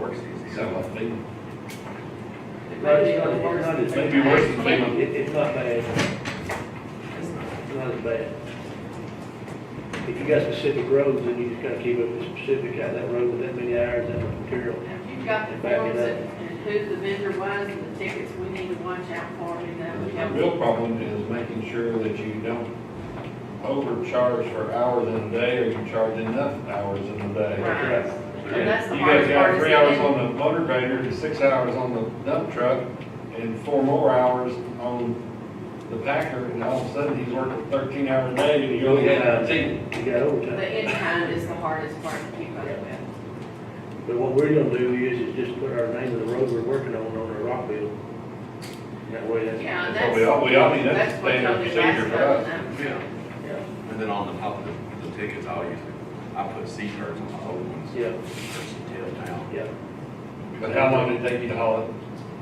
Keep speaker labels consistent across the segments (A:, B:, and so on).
A: worse these
B: Sound
A: days.
B: like Cleveland.
A: It
C: But
A: may-
C: it's not, it's not as bad.
B: Maybe worse than Cleveland.
C: It, it's not bad,
A: It's not.
C: it's not as bad. If you got specific roads, then you just gotta keep up with specifics, out that road with that many hours, that much material.
D: If you've got the forms that, and who the vendor was and the tickets, we need to watch out for, you know, we
B: The
D: have.
B: real problem is making sure that you don't overcharge for hours in a day, or you charge enough hours in a day.
D: Right.
B: You
D: And that's the
B: guys
D: hardest part.
B: got
D: is
B: three hours
D: getting-
B: on the motor grader, and six hours on the dump truck, and four more hours on the packer, and all of a sudden, he's working thirteen hours a day, and you only had eighteen.
C: You got overtime.
D: The in kind is the hardest part to keep up with.
C: But what we're gonna do is, is just put our name of the road we're working on on the rock bill. That way that's.
D: Yeah,
B: Well, we
D: that's,
B: all, we all need that
D: that's what
B: standard
D: Tony
B: procedure
D: Bass
B: for
D: does,
B: us.
D: and
A: Yeah.
D: that's-
C: Yeah.
A: And then on the top of the, the tickets, I'll usually, I put C cards on my old ones,
C: Yeah,
A: there's some tail down.
C: yeah.
B: But how long did it take you to haul it,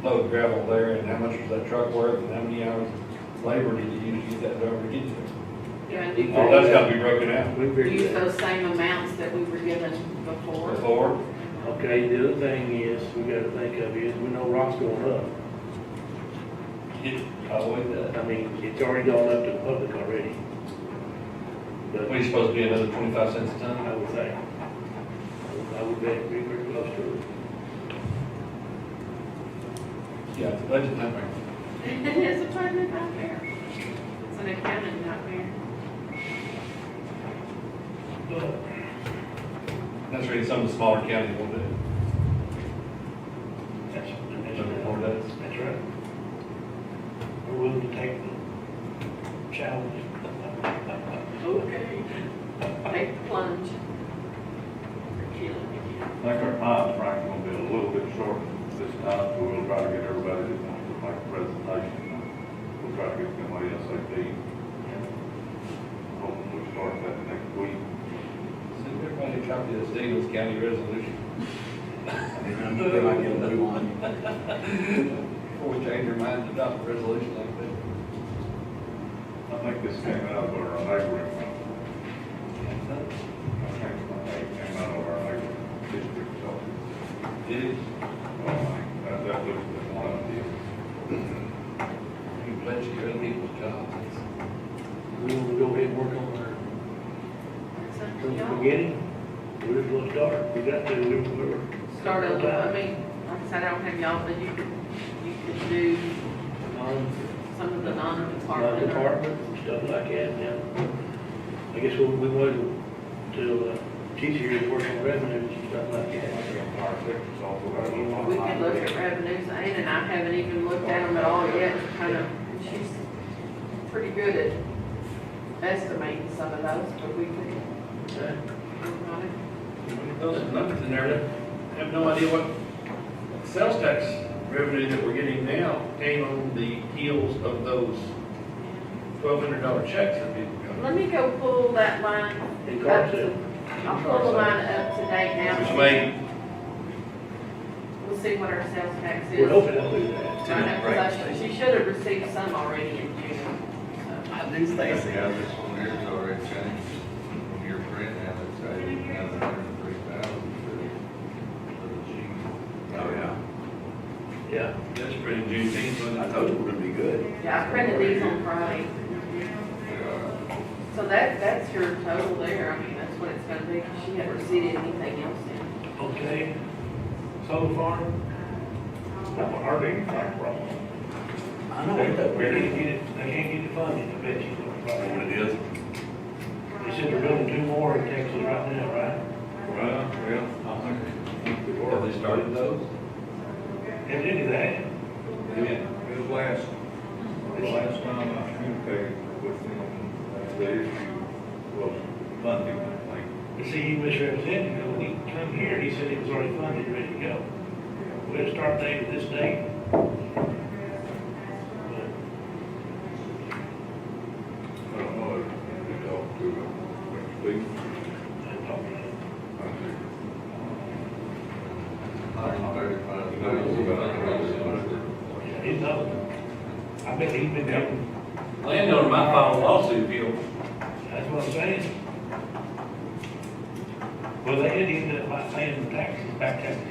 B: load gravel there, and how much was that truck worth, and how many hours labor did you use to get that over to get there?
D: you know, and
B: All that's gotta be broken out
C: We
D: you
C: figured
D: use
C: that.
D: those same amounts that we were given before.
B: before.
C: Okay, the other thing is, we gotta think of is, we know rock's going up.
B: Probably that.
C: I mean, it's already gone up to the public already. But
B: What, you supposed to be another twenty-five cents a ton?
C: I would think, I would bet it'd be pretty close to it.
B: Yeah, it's a budget nightmare.
D: It is a tournament nightmare. It's an accounting nightmare.
C: But
B: That's really some of the smaller counties will do.
C: that's,
B: Number four
C: that's,
B: does.
C: that's right. We're willing to take the challenge.
D: Okay. Take the plunge. You're killing me.
E: I think our time frame's gonna be a little bit short this time, so we'll try to get everybody that wants to make a presentation. We'll try to get them ASAP. Hopefully we start that next week.
B: So everybody copy this Daniels County resolution
A: I mean, I'm sure I get a new one.
B: before we change our mind to adopt a resolution like that.
E: I think this came out of our neighboring, uh, I think it came out of our neighboring district, so.
B: It is,
E: uh, That, that was the one of the,
B: you pledge your own people's jobs.
C: We want to go ahead and work on
D: It's
C: our,
D: up to
C: from the
D: y'all.
C: beginning. We're just gonna start, we got to, we we're,
D: Start over, I mean, like I said, I don't have y'all, but you could, you could do
C: non,
D: some of the non-department. or-
C: non-department and stuff like that, yeah. I guess what we wanted to, uh, teach you to work on revenues and stuff like
E: I
C: that.
E: think our section's also got a little
D: We could look at
E: online.
D: revenues, Ann and I haven't even looked at them at all yet, kind of, she's pretty good at estimating some of those, but we could,
C: Okay.
D: work on it.
F: Those numbers in there, I have no idea what sales tax revenue that we're getting now came on the heels of those twelve hundred dollar checks that people got.
D: Let me go pull that line
C: And
D: up
C: car
D: to,
C: sale.
D: I'll pull the line up to date now.
F: Which made,
D: We'll see what our sales tax is.
C: We're hoping they'll do that.
D: Right, 'cause I- She should have received some already in June, so.
A: I do
G: Yeah, this one here's already changed from your print now, it's eighty, now it's hundred and three thousand for for the G.
A: Oh, yeah.
C: Yeah.
F: that's pretty Juneteenth, wasn't
A: I
F: it?
A: told you we're gonna be good.
D: Yeah, I printed these on Friday.
G: Yeah,
D: So that, that's your total there, I mean, that's what it's gonna be, 'cause she hadn't received anything else in.
C: Okay. Solar farm,
E: Not hardly anything from them.
A: I
C: they
A: know.
C: they
A: that we're
C: can't
A: gonna-
C: get it, they can't get it funded, I bet
E: You know What
C: you.
E: it is,
C: They said they're building two more in Texas right now, right?
E: well, yeah.
B: Have they started those?
C: If any of that,
G: It was last, it was last time I communicated with them, the issue was funding, like,
C: you see, you misrepresented him, when he come here, he said he was already funded, ready to go. We had a start date with this date. But
E: I don't know, if you talked to them, when you speak.
C: I talked to
G: thirty-five thousand.
C: him. He's up. I bet he's been down,
B: Landowner might file a lawsuit if you don't
C: that's what I'm saying. Well, they did end up by paying uh, taxes, back taxes